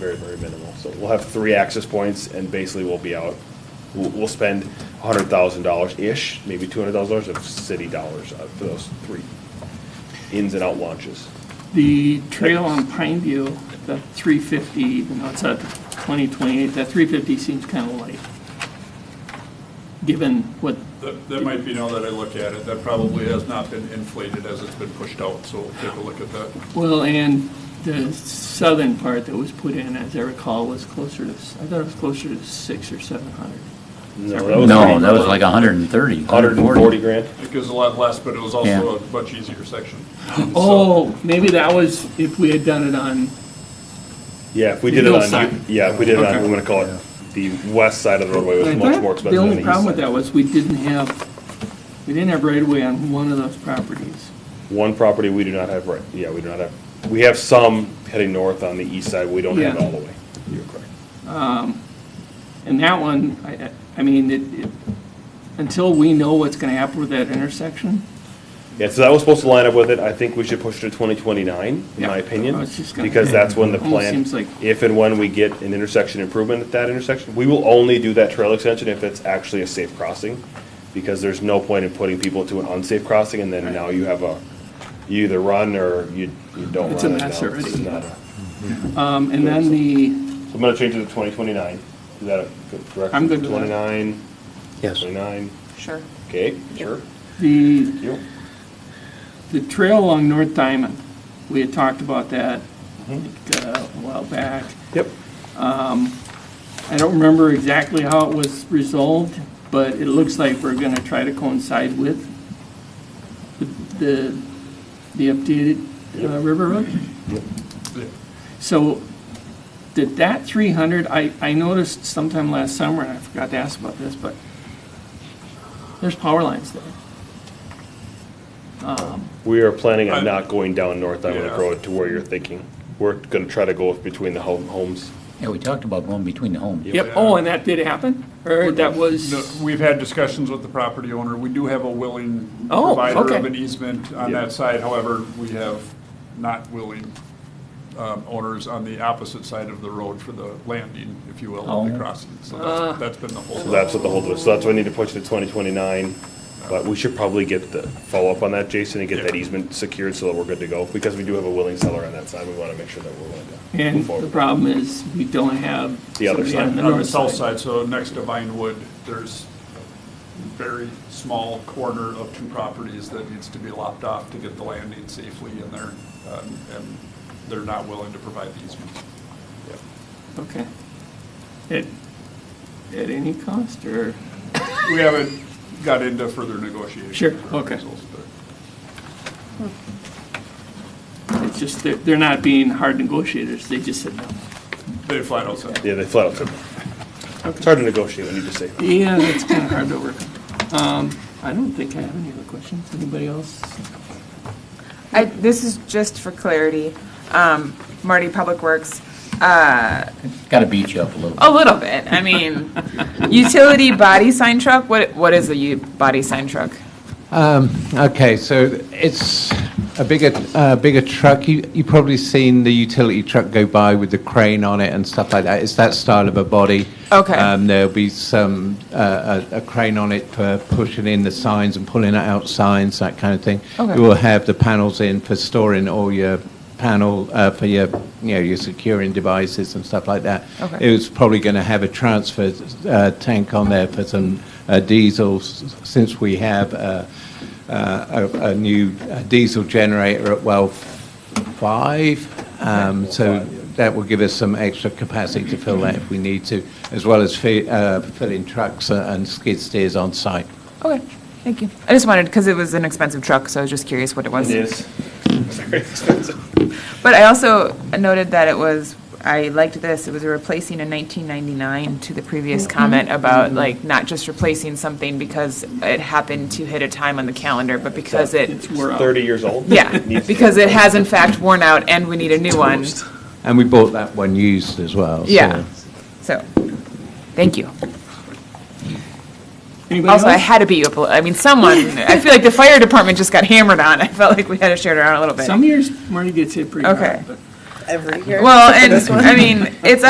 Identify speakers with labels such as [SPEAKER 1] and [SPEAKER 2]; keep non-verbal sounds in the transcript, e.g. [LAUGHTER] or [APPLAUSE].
[SPEAKER 1] very, very minimal. So we'll have three access points and basically we'll be out, we'll, we'll spend hundred thousand dollars-ish, maybe two hundred thousand dollars of city dollars uh, for those three ins and out launches.
[SPEAKER 2] The trail on Pineview, the 350, even though it's at 2028, that 350 seems kind of light, given what,
[SPEAKER 3] That, that might be now that I look at it, that probably has not been inflated as it's been pushed out, so we'll take a look at that.
[SPEAKER 2] well, and the southern part that was put in, as I recall, was closer to, I thought it was closer to six or 700.
[SPEAKER 1] uh,
[SPEAKER 4] No, that was like 130,
[SPEAKER 1] Hundred and
[SPEAKER 4] 140.
[SPEAKER 1] forty grand.
[SPEAKER 3] Because a lot less, but it was also a much easier section. So-
[SPEAKER 2] Oh, maybe that was if we had done it on,
[SPEAKER 1] Yeah, if we did it on,
[SPEAKER 2] Hillside.
[SPEAKER 1] yeah, if we did it on,
[SPEAKER 3] Okay.
[SPEAKER 1] I'm gonna call it the west side of the roadway, it
[SPEAKER 2] I
[SPEAKER 1] was much more
[SPEAKER 2] thought the
[SPEAKER 1] expensive than the
[SPEAKER 2] only
[SPEAKER 1] east
[SPEAKER 2] problem with
[SPEAKER 1] side.
[SPEAKER 2] that was we didn't have, we didn't have right of way on one of those properties.
[SPEAKER 1] One property we do not have, right, yeah, we do not have, we have some heading north on the east side, we don't have it
[SPEAKER 2] Yeah.
[SPEAKER 1] all the way. You're correct.
[SPEAKER 2] And that one, I, I- I mean, it, it, until we know what's gonna happen with that intersection,
[SPEAKER 1] Yeah, so that was supposed to line up with it. I think we should push it to twenty twenty-nine, in my
[SPEAKER 2] Yeah, I
[SPEAKER 1] opinion.
[SPEAKER 2] was just gonna-
[SPEAKER 1] Because that's when the
[SPEAKER 2] Almost
[SPEAKER 1] plan,
[SPEAKER 2] seems like-
[SPEAKER 1] if and when we get an intersection improvement at that intersection, we will only do that trail extension if it's actually a safe crossing. Because there's no point in putting people to an unsafe crossing and then now you have a, you either run or you, you don't run.
[SPEAKER 2] It's a
[SPEAKER 1] and
[SPEAKER 2] mess
[SPEAKER 1] now it's
[SPEAKER 2] already.
[SPEAKER 1] not a-
[SPEAKER 2] um, and then the,
[SPEAKER 1] So I'm gonna change it to twenty twenty-nine. Is that a good correct?
[SPEAKER 2] I'm good with that.
[SPEAKER 1] Twenty-nine,
[SPEAKER 5] Yes.
[SPEAKER 1] twenty-nine,
[SPEAKER 6] Sure.
[SPEAKER 1] okay, sure,
[SPEAKER 2] the,
[SPEAKER 1] thank you.
[SPEAKER 2] the trail along North Diamond, we had talked about that, I think, uh, a while back.
[SPEAKER 1] Yep.
[SPEAKER 2] I don't remember exactly how it was resolved, but it looks like we're gonna try to coincide with the, the updated uh, River Road.
[SPEAKER 3] Yeah.
[SPEAKER 2] So, did that three hundred, I, I noticed sometime last summer, and I forgot to ask about this, but there's power lines there.
[SPEAKER 1] We are planning on
[SPEAKER 3] I-
[SPEAKER 1] not going down North Island
[SPEAKER 3] Yeah.
[SPEAKER 1] Road to where you're thinking. We're gonna try to go between the home- homes.
[SPEAKER 4] Yeah, we talked about going between the homes.
[SPEAKER 2] Yep, oh, and that did happen, or that
[SPEAKER 3] No,
[SPEAKER 2] was,
[SPEAKER 3] We've had discussions with the property owner. We do have a willing
[SPEAKER 2] Oh,
[SPEAKER 3] provider of
[SPEAKER 2] okay.
[SPEAKER 3] an easement on
[SPEAKER 1] Yeah.
[SPEAKER 3] that side. However, we have not willing um, owners on the opposite side of the road for the landing, if you will, of the
[SPEAKER 4] Oh.
[SPEAKER 3] crossing. So
[SPEAKER 2] Uh.
[SPEAKER 3] that's, that's been the
[SPEAKER 1] So
[SPEAKER 3] whole.
[SPEAKER 1] that's what the hold was. So that's why I need to push it to twenty twenty-nine. But we should probably get the follow-up on that, Jason, and get that
[SPEAKER 3] Yeah.
[SPEAKER 1] easement secured so that we're good to go. Because we do have a willing seller on that side. We wanna make sure that we're willing to
[SPEAKER 2] and
[SPEAKER 1] move
[SPEAKER 2] the
[SPEAKER 1] forward.
[SPEAKER 2] problem is, we don't have
[SPEAKER 1] The other
[SPEAKER 2] somebody
[SPEAKER 1] side.
[SPEAKER 2] on the
[SPEAKER 3] On the
[SPEAKER 2] north
[SPEAKER 3] south
[SPEAKER 2] side.
[SPEAKER 3] side, so next to Vinewood, there's very small corner of two properties that needs to be lopped off to get the landing safely in there. um, And they're not willing to provide the easement.
[SPEAKER 2] Okay. At, at any cost, or?
[SPEAKER 3] We haven't got into further negotiations.
[SPEAKER 2] Sure,
[SPEAKER 3] or
[SPEAKER 2] okay.
[SPEAKER 3] proposals, but-
[SPEAKER 2] It's just, they're, they're not being hard negotiators, they just said no.
[SPEAKER 3] They flat out said,
[SPEAKER 1] Yeah, they flat out said. It's hard to negotiate when you just say.
[SPEAKER 2] Yeah, [LAUGHS] that's kind of hard to work. Um, I don't think I have any other questions, anybody else?
[SPEAKER 6] I, this is just for clarity. Um, Marty, Public Works,
[SPEAKER 4] Got to beat you up a little.
[SPEAKER 6] a little bit. I [LAUGHS] mean, utility body sign truck, what, what is a u- body sign truck?
[SPEAKER 7] Um, Okay, so it's a bigger, uh, bigger truck. You, you've probably seen the utility truck go by with the crane on it and stuff like that. It's that style of a body.
[SPEAKER 6] Okay.
[SPEAKER 7] Um, there'll be some uh, a, a crane on it for pushing in the signs and pulling out signs, that kind of thing.
[SPEAKER 6] Okay.
[SPEAKER 7] You will have the panels in for storing all your panel uh, for your you know your securing devices and stuff like that.
[SPEAKER 6] Okay.
[SPEAKER 7] It was probably going to have a transfer uh, tank on there for some uh, diesels, since we have. Uh, uh, a, a new uh, diesel generator at well five. Um, so that will give us some extra capacity to fill that if we need to, as well as fi- uh, filling trucks uh, and skid steers on site.
[SPEAKER 6] Okay, thank you. I just wanted, because it was an expensive truck, so I was just curious what it was.
[SPEAKER 1] is.
[SPEAKER 6] But I also noted that it was, I liked this, it was replacing a 1999 to the previous comment about like not just replacing something because it happened to hit a time on the calendar, but because it,
[SPEAKER 1] [LAUGHS]
[SPEAKER 2] It's, we're
[SPEAKER 1] [LAUGHS]
[SPEAKER 2] out.
[SPEAKER 1] Thirty years old.
[SPEAKER 6] yeah,
[SPEAKER 1] Needs to-
[SPEAKER 6] because it has in fact worn out and we need a new one.
[SPEAKER 7] And we bought that one used as well. so-
[SPEAKER 6] Yeah, so, thank you.
[SPEAKER 2] Anybody
[SPEAKER 6] Also, I
[SPEAKER 2] else?
[SPEAKER 6] had to beat you up, a li- I mean, someone, I feel like the fire department just got hammered on, I felt like we had to share it around a little bit.
[SPEAKER 2] Some years Marty gets hit pretty
[SPEAKER 6] Okay.
[SPEAKER 2] hard, but
[SPEAKER 5] every year.
[SPEAKER 6] Well,
[SPEAKER 5] For
[SPEAKER 6] and,
[SPEAKER 5] this one.
[SPEAKER 6] I mean, it's